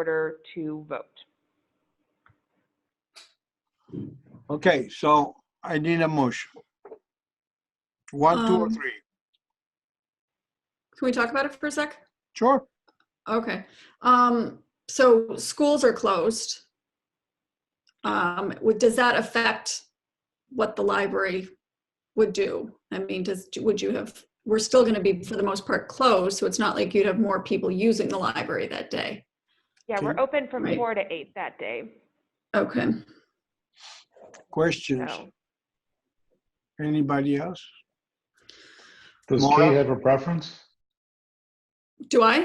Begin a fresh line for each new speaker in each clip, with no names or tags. order to vote.
Okay, so I need a motion. One, two, or
Um,
three?
Can we talk about it for a sec?
Sure.
Okay. Um, so schools are closed. Um, would, does that affect what the library would do? I mean, does, would you have, we're still gonna be, for the most part, closed, so it's not like you'd have more people using the library that day.
Yeah, we're
Okay.
open from
Right.
four to eight that day,
Okay.
Questions?
so.
Anybody else?
Does
Maura?
Kate have a preference?
Do I?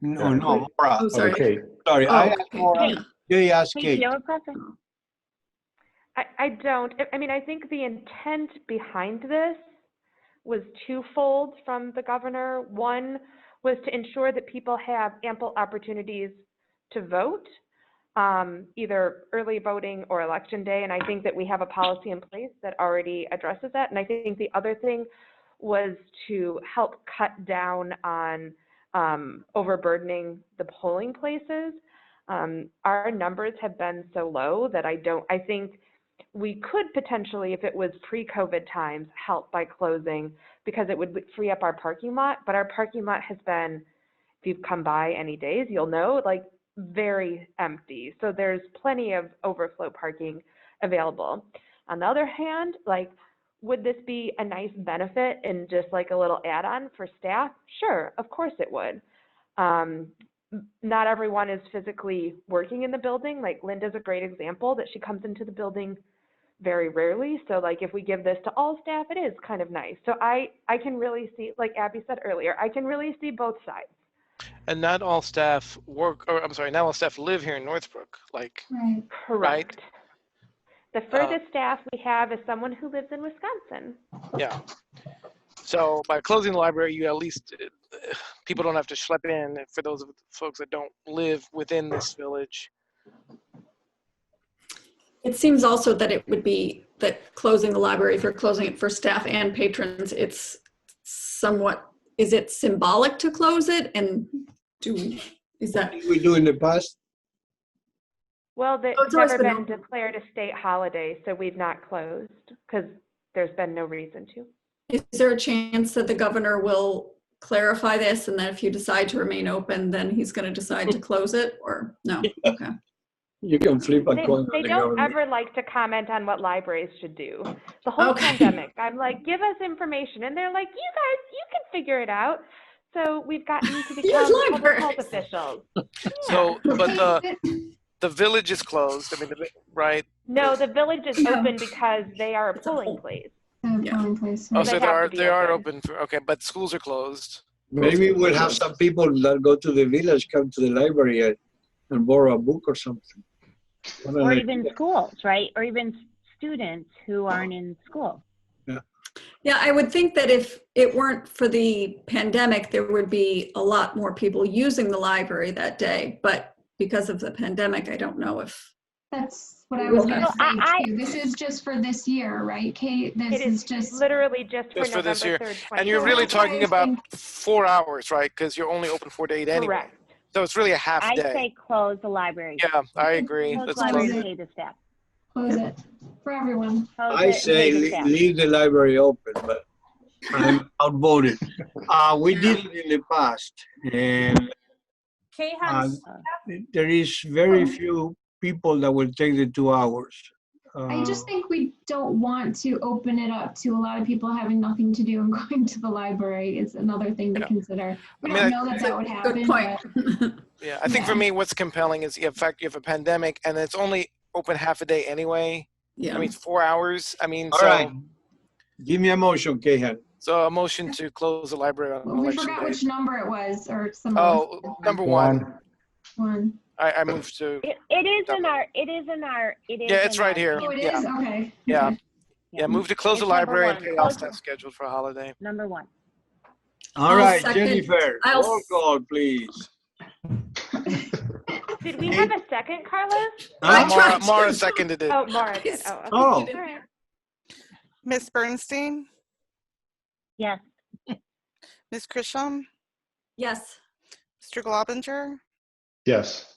No,
Yeah.
no, Maura,
Oh, sorry.
Okay,
sorry, Uh, I
Oh,
asked
okay,
Maura,
yeah.
they asked Kate.
I, I don't, I- I mean, I think the intent behind this was twofold from the governor. One was to ensure that people have ample opportunities to vote, um, either early voting or election day, and I think that we have a policy in place that already addresses that. And I think the other thing was to help cut down on, um, overburdening the polling places um, our numbers have been so low that I don't, I think we could potentially, if it was pre-COVID times, help by closing because it would free up our parking lot, but our parking lot has been, if you've come by any days, you'll know, like, very empty. So there's plenty of overflow parking available. On the other hand, like, would this be a nice benefit and just like a little add-on for staff? Sure, of course it would. Um, m- not everyone is physically working in the building. Like Linda's a great example that she comes into the building very rarely. So like if we give this to all staff, it is kind of nice. So I I can really see like Abby said earlier, I can really see both sides.
And not all staff work, or I'm sorry, not all staff live here in Northbrook. Like,
Right.
Correct. The furthest staff we have is someone who lives in Wisconsin.
yeah. So by closing the library, you at least uh, people don't have to schlep in. For those of folks that don't live within this village,
It seems also that it would be, that closing the library, if you're closing it for staff and patrons, it's somewhat, is it symbolic to close it? And do, we? is that,
We do in the past,
Well, the,
Oh, it's always
never
been
been
open.
declared a state holiday, so we've not closed because there's been no reason to.
is there a chance that the governor will clarify this and that if you decide to remain open, then he's going to decide to close it or no? Okay.
You can flip a
They,
coin.
they
and
don't
government-
ever like to comment on what libraries should do. The whole
Okay.
pandemic, I'm like, give us information, and they're like, you guys, you can figure it out. So we've gotten to
You're
become public health
libraries.
officials.
so but the the village is closed. I mean, the vi- right?
No, the village is
No.
open because they are a
It's a
polling
whole-
place.
They're
Yeah.
polling place,
Oh,
right?
They
so
have
they
to
are
be
they are
open.
open for okay, but schools are closed.
Maybe we'll have some people that go to the village, come to the library and- and borrow a book or something. What an
or
idea.
even schools, right? Or even s- students who aren't in school.
Yeah, I would think that if it weren't for the pandemic, there would be a lot more people using the library that day. But because of the pandemic, I don't know if,
That's what I was
Well,
gonna
I- I-
say too. This is just for this year, right, Kate? This
It
is
is
just,
literally just for
Just for
November
this year.
3rd, 2020.
And you're really
that's what I
talking
was
about
thinking.
four hours, right? Because you're only open four to eight anyway.
Correct.
So it's really a half
I
day.
say close the library.
yeah, I agree.
Close
Let's
the
close
library
it.
and pay the staff.
close it for everyone.
Close it
I
and
say
pay the
le-
staff.
leave the library open, but I'm outvoted.
uh, we did it in the past and
Kay
uh,
has,
there is very few people that will take the two hours.
I
Uh,
just think we don't want to open it up to a lot of people having nothing to do and going to the library is another thing to
Yeah.
consider. We
I mean,
don't know that that would happen.
good point.
but-
Yeah, I think for
Yeah.
me, what's compelling is the fact you have a pandemic and it's only open half a day anyway. I
Yeah.
mean, it's four hours. I mean,
All
so,
right.
Give me a motion, Kahan.
so a motion to close the library on
Well, We
election
forgot
day.
which number it was or some.
Oh, number one.
one,
One.
I, I moved to.
It, it is in
Double.
our, it is in our, it is.
Yeah, it's
in our
right here.
Oh, it
Yeah.
is? Okay.
Yeah.
Okay.
Yeah, move to close the
It's number
library and
one.
pay off staff scheduled for a holiday.
Number one.
All
I'll
right,
second-
Jennifer,
I'll
roll
s-
call, please.
Did we have a second, Carlos?
I
Huh?
tried
Mara,
to-
Mara seconded it.
Oh, Mara did.
Yes.
Oh, okay.
Oh.
All right.
Miss Bernstein,
Yes.
Miss Krisham,
Yes.
Mr. Globinger,
yes.